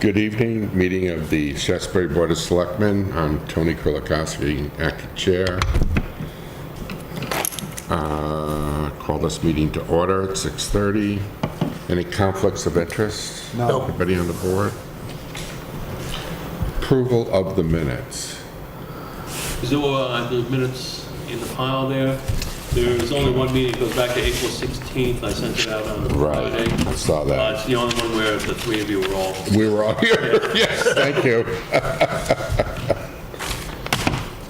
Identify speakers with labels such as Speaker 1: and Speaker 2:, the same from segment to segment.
Speaker 1: Good evening, meeting of the Shasberry Board of Selectmen. I'm Tony Kulikowski, acting chair. Uh, Call this meeting to order at 6:30. Any conflicts of interest?
Speaker 2: No.
Speaker 1: Anybody on the board? Approval of the minutes.
Speaker 3: Is there, uh, the minutes in the pile there? There is only one meeting, it goes back to April 16th, I sent it out on Friday.
Speaker 1: I saw
Speaker 3: Uh,
Speaker 1: that.
Speaker 3: It's the only one where the three of you were all,
Speaker 1: We were all here. Yes, thank you.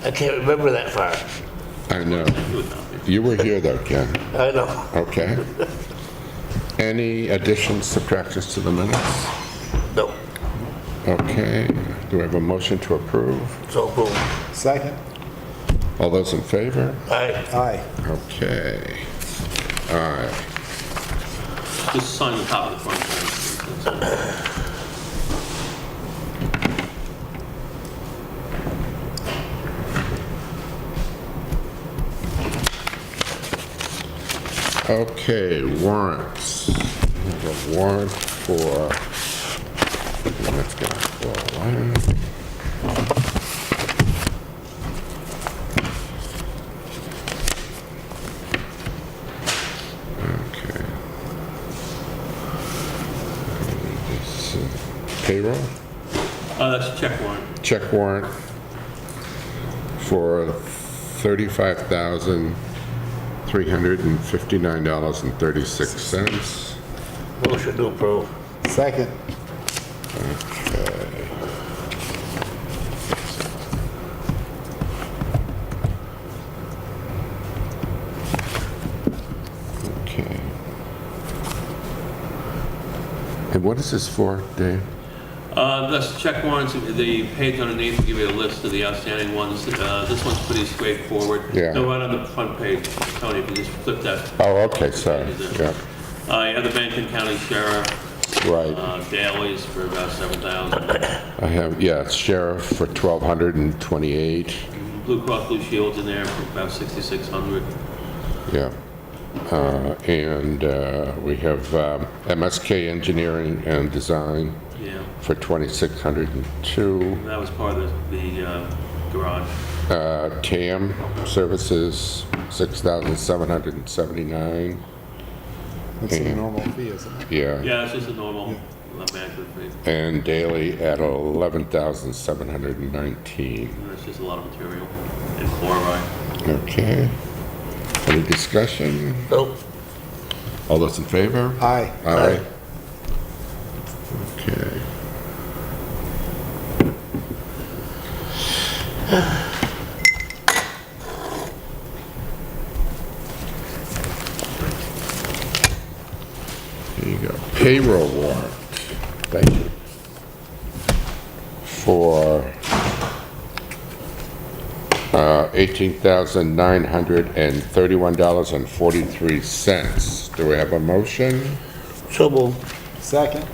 Speaker 2: I can't remember that far.
Speaker 1: I know.
Speaker 3: you would not be.
Speaker 1: You were here though, Ken.
Speaker 2: I know.
Speaker 1: Okay. Any additions, subtractions to the minutes?
Speaker 2: No.
Speaker 1: Okay, do I have a motion to approve?
Speaker 2: So boom.
Speaker 4: Second.
Speaker 1: All those in favor?
Speaker 2: Aye.
Speaker 4: Aye.
Speaker 1: Okay.
Speaker 3: Just sign the top of the front page. That's all.
Speaker 1: Okay, warrants. We have a warrant for, let's get a one. Okay. This, uh, Payroll?
Speaker 3: Uh, that's a check warrant.
Speaker 1: check warrant for $35,359.36.
Speaker 2: Motion to approve.
Speaker 4: Second.
Speaker 1: Okay. And what is this for, Dave?
Speaker 3: Uh, That's check warrants, the page underneath will give you a list of the outstanding ones. Uh, This one's pretty straightforward.
Speaker 1: Yeah.
Speaker 3: No, right on the front page, Tony, if you just flip that.
Speaker 1: Oh, okay, sorry. Yeah,
Speaker 3: Uh, You have the Benton County Sheriff,
Speaker 1: right.
Speaker 3: uh, Daley's for about 7,000.
Speaker 1: I have, yeah, sheriff for 1,228.
Speaker 3: Blue Cross Blue Shield's in there for about 6,600.
Speaker 1: Yeah. Uh, And uh, we have um, MSK Engineering and Design
Speaker 3: Yeah,
Speaker 1: for 2,602.
Speaker 3: and that was part of the- the uh, garage.
Speaker 1: Uh, TAM Services, 6779
Speaker 4: That's a normal fee, isn't it?
Speaker 1: yeah.
Speaker 3: Yeah, it's just a normal uh, management fee.
Speaker 1: And daily at 11719
Speaker 3: And It's just a lot of material and chloride.
Speaker 1: Okay. Any discussion?
Speaker 2: Nope.
Speaker 1: All those in favor?
Speaker 4: Aye.
Speaker 1: Aye. Okay. There you go. Payroll warrant. Thank you. For uh, $18,931.43. Do we have a motion?
Speaker 2: So boom.
Speaker 4: Second.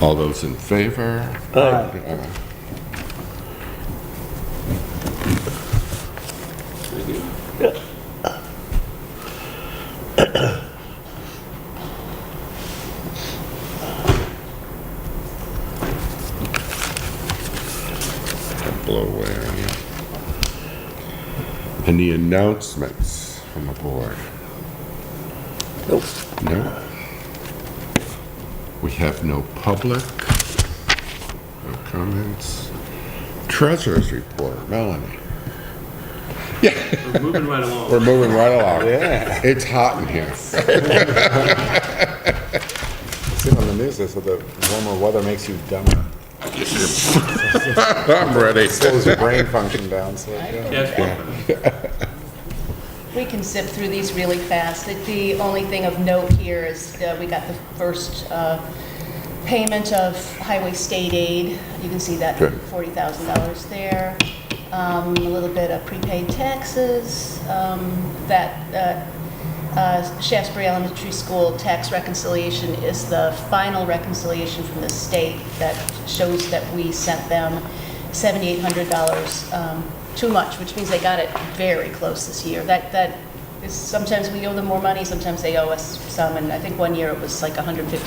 Speaker 1: All those in favor?
Speaker 4: Aye.
Speaker 1: Uh,
Speaker 3: Thank you.
Speaker 1: don't blow away on you. Any announcements from the board?
Speaker 2: Nope.
Speaker 1: No? We have no public, no comments. Treasurer's report, Melanie.
Speaker 3: We're moving right along.
Speaker 1: We're moving right along.
Speaker 4: Yeah.
Speaker 1: It's hot in here.
Speaker 4: Seen on the news, they said the warmer weather makes you dumber.
Speaker 1: I'm ready.
Speaker 4: Slows your brain function down, so. yeah.
Speaker 3: Yes,
Speaker 5: We can zip through these really fast. The- The only thing of note here is uh, we got the first uh, payment of highway state aid. You can see that
Speaker 1: Good.
Speaker 5: $40,000 there. Um, A little bit of prepaid taxes, um, that uh, uh, Shaftesbury Elementary School tax reconciliation is the final reconciliation from the state that shows that we sent them $7,800 um, too much, which means they got it very close this year. That, that is, sometimes we owe them more money, sometimes they owe us some, and I think one year it was like 150